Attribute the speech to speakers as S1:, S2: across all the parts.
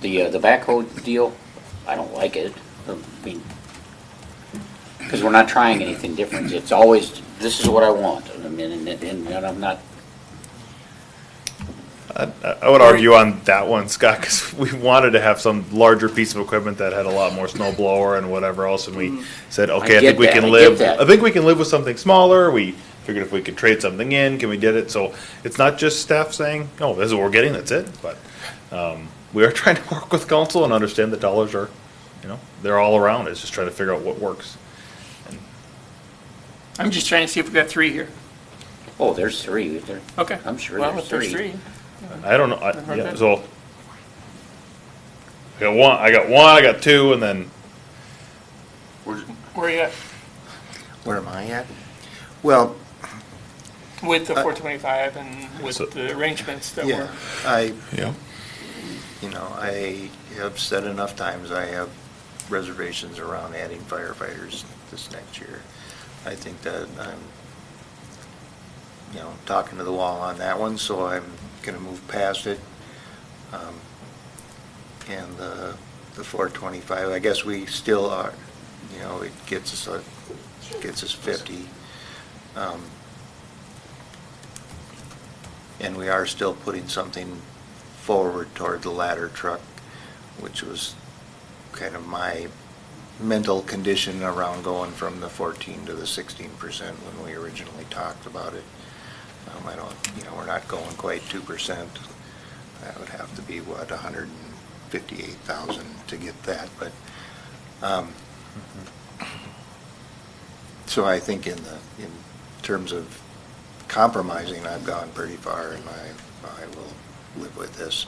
S1: The, uh, the backhoe deal, I don't like it. I mean, because we're not trying anything different. It's always, this is what I want. I mean, and, and and I'm not,
S2: I I would argue on that one, Scott, because we wanted to have some larger piece of equipment that had a lot more snow blower and whatever else, and we said, okay, I
S1: get
S2: think we
S1: that, Mm. I
S2: can
S1: get
S2: live,
S1: that.
S2: I think we can live with something smaller, we figured if we could trade something in, can we get it, so it's not just staff saying, oh, this is what we're getting, that's it, but, um, we are trying to work with council and understand the dollars are, you know, they're all around, it's just trying to figure out what works.
S3: I'm just trying to see if we got three here.
S1: oh, there's three. There-
S3: Okay.
S1: I'm sure
S3: Well,
S1: there's
S3: if there's
S1: three.
S3: three.
S2: I don't know, I,
S3: Mhm.
S2: yeah, so. I got one, I got one, I got two, and then
S3: Where are you at
S4: Where am I at? Well,
S3: with the four twenty-five and with
S2: So-
S3: the arrangements that
S4: yeah,
S3: were?
S4: I,
S2: Yeah.
S4: you know, I have said enough times I have reservations around adding firefighters this next year. I think that I'm, you know, talking to the wall on that one, so I'm gonna move past it. Um, And the, the four twenty-five, I guess we still are, you know, it gets us, a- gets us fifty. Um, And we are still putting something forward toward the ladder truck, which was kind of my mental condition around going from the 14 to the 16 percent when we originally talked about it. Um, I don't, you know, we're not going quite 2 percent. That would have to be, what, 158,000 to get that, but, um, so I think in the, in terms of compromising, I've gone pretty far and I, I will live with this.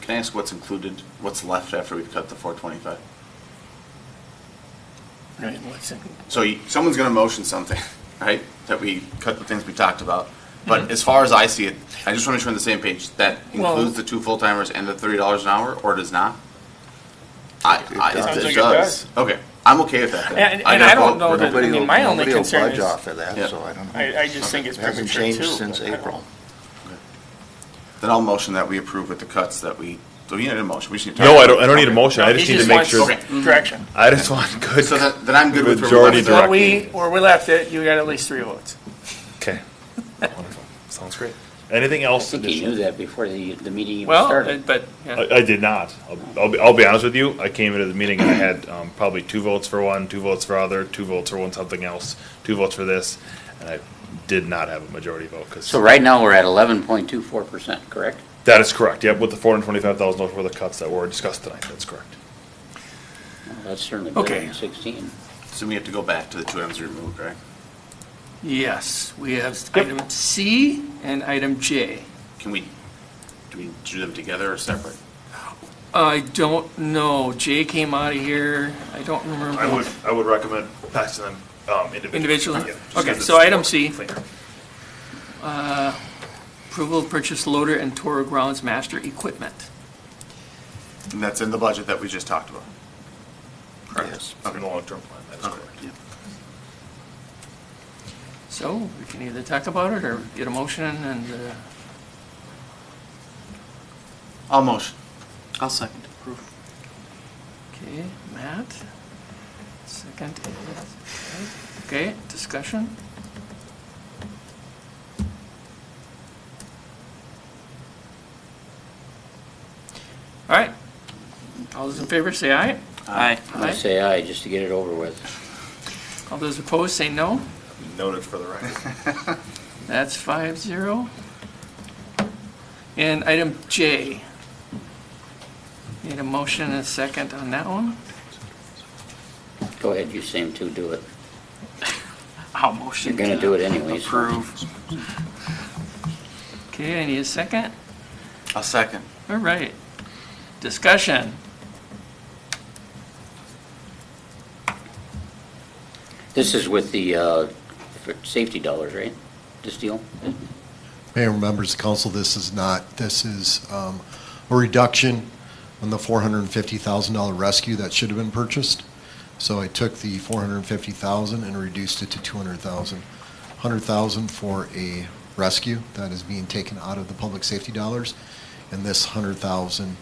S5: Can I ask what's included, what's left after we've cut the four twenty-five?
S3: Right, what's in-
S5: So you- someone's gonna motion something, right, that we cut the things we talked about. But as far as I see it, I just wanna make sure we're on the same page, that
S3: Mm-hmm. Well-
S5: includes the two full-timers and the thirty dollars an hour, or does not? I, I,
S4: It
S3: sounds like
S5: it
S3: it
S5: does, okay, I'm okay with that then.
S3: And- and I
S5: got
S3: don't
S5: vote.
S3: know that- I
S4: Nobody
S3: mean,
S4: will-
S3: my only
S4: nobody will
S3: concern
S4: budge
S3: is-
S4: off of that,
S5: Yeah.
S4: so I don't.
S3: I, I just think it's
S4: It hasn't
S3: premature too.
S4: changed since
S3: but I don't-
S4: April.
S5: Then I'll motion that we approve with the cuts that we, do we need a motion? We just need to
S2: No,
S5: talk
S2: I
S5: about
S2: don't, I
S5: it.
S2: don't need a
S5: Okay.
S2: motion, I
S3: He
S2: just need to make
S3: wants
S2: sure,
S5: Okay.
S3: Direction.
S2: I just want good.
S5: So then, then I'm good with. where we
S2: Majority
S5: left
S2: direct-
S5: off.
S3: Where we, where we left it, you got at least three votes.
S2: Okay. Wonderful. Sounds great. Anything else?
S1: I think you knew
S2: additional?
S1: that before the, the meeting even
S3: Well, uh,
S1: started.
S3: but, yeah.
S2: I, I did not. I'll, I'll be, I'll be honest with you. I came into the meeting and I had, um, probably two votes for one, two votes for other, two votes for one something else, two votes for this, and I did not have a majority vote, cause.
S1: So right now, we're at eleven point two four percent, correct?
S2: That is correct. Yep, with the four hundred twenty-five thousand dollars worth of cuts that were discussed tonight. That's correct.
S1: Well, That's certainly better
S3: Okay.
S1: than sixteen.
S5: So we have to go back to the two items we removed, right?
S3: Yes, we have item C and item J.
S5: Can we, do we do them together or separate?
S3: I don't know, J came out of here, I don't remember.
S2: I would, I would recommend passing them, um, individually.
S3: Individually?
S2: Yeah, just 'cause
S3: Okay,
S2: it's
S3: so item
S2: more
S3: C.
S2: cleaner.
S3: Approval of purchase loader and Toro Grounds Master Equipment.
S5: And that's in the budget that we just talked about.
S4: Yes.
S2: It's in the long-term plan. That is correct.
S3: So we can either talk about it or get a motion and, uh,
S5: I'll motion. I'll second.
S3: okay, Matt, second. is- Okay, discussion? All right, all those in favor say aye.
S5: Aye.
S1: I say aye, just to get it over with.
S3: All those opposed say no.
S5: Noted for the record.
S3: That's five zero. And item J. Need a motion and a second on that one?
S1: Go ahead, you seem to do it.
S3: I'll motion.
S1: You're gonna do it
S3: uh,
S1: anyways.
S3: Okay, I need a second.
S5: I'll second.
S3: All right. Discussion.
S1: This is with the, uh, for safety dollars, right? This deal?
S6: Mayor and members of council, this is not, this is um, a reduction on the $450,000 rescue that should have been purchased. So I took the 450,000 and reduced it to 200,000. 100,000 for a rescue that is being taken out of the public safety dollars, and this 100,000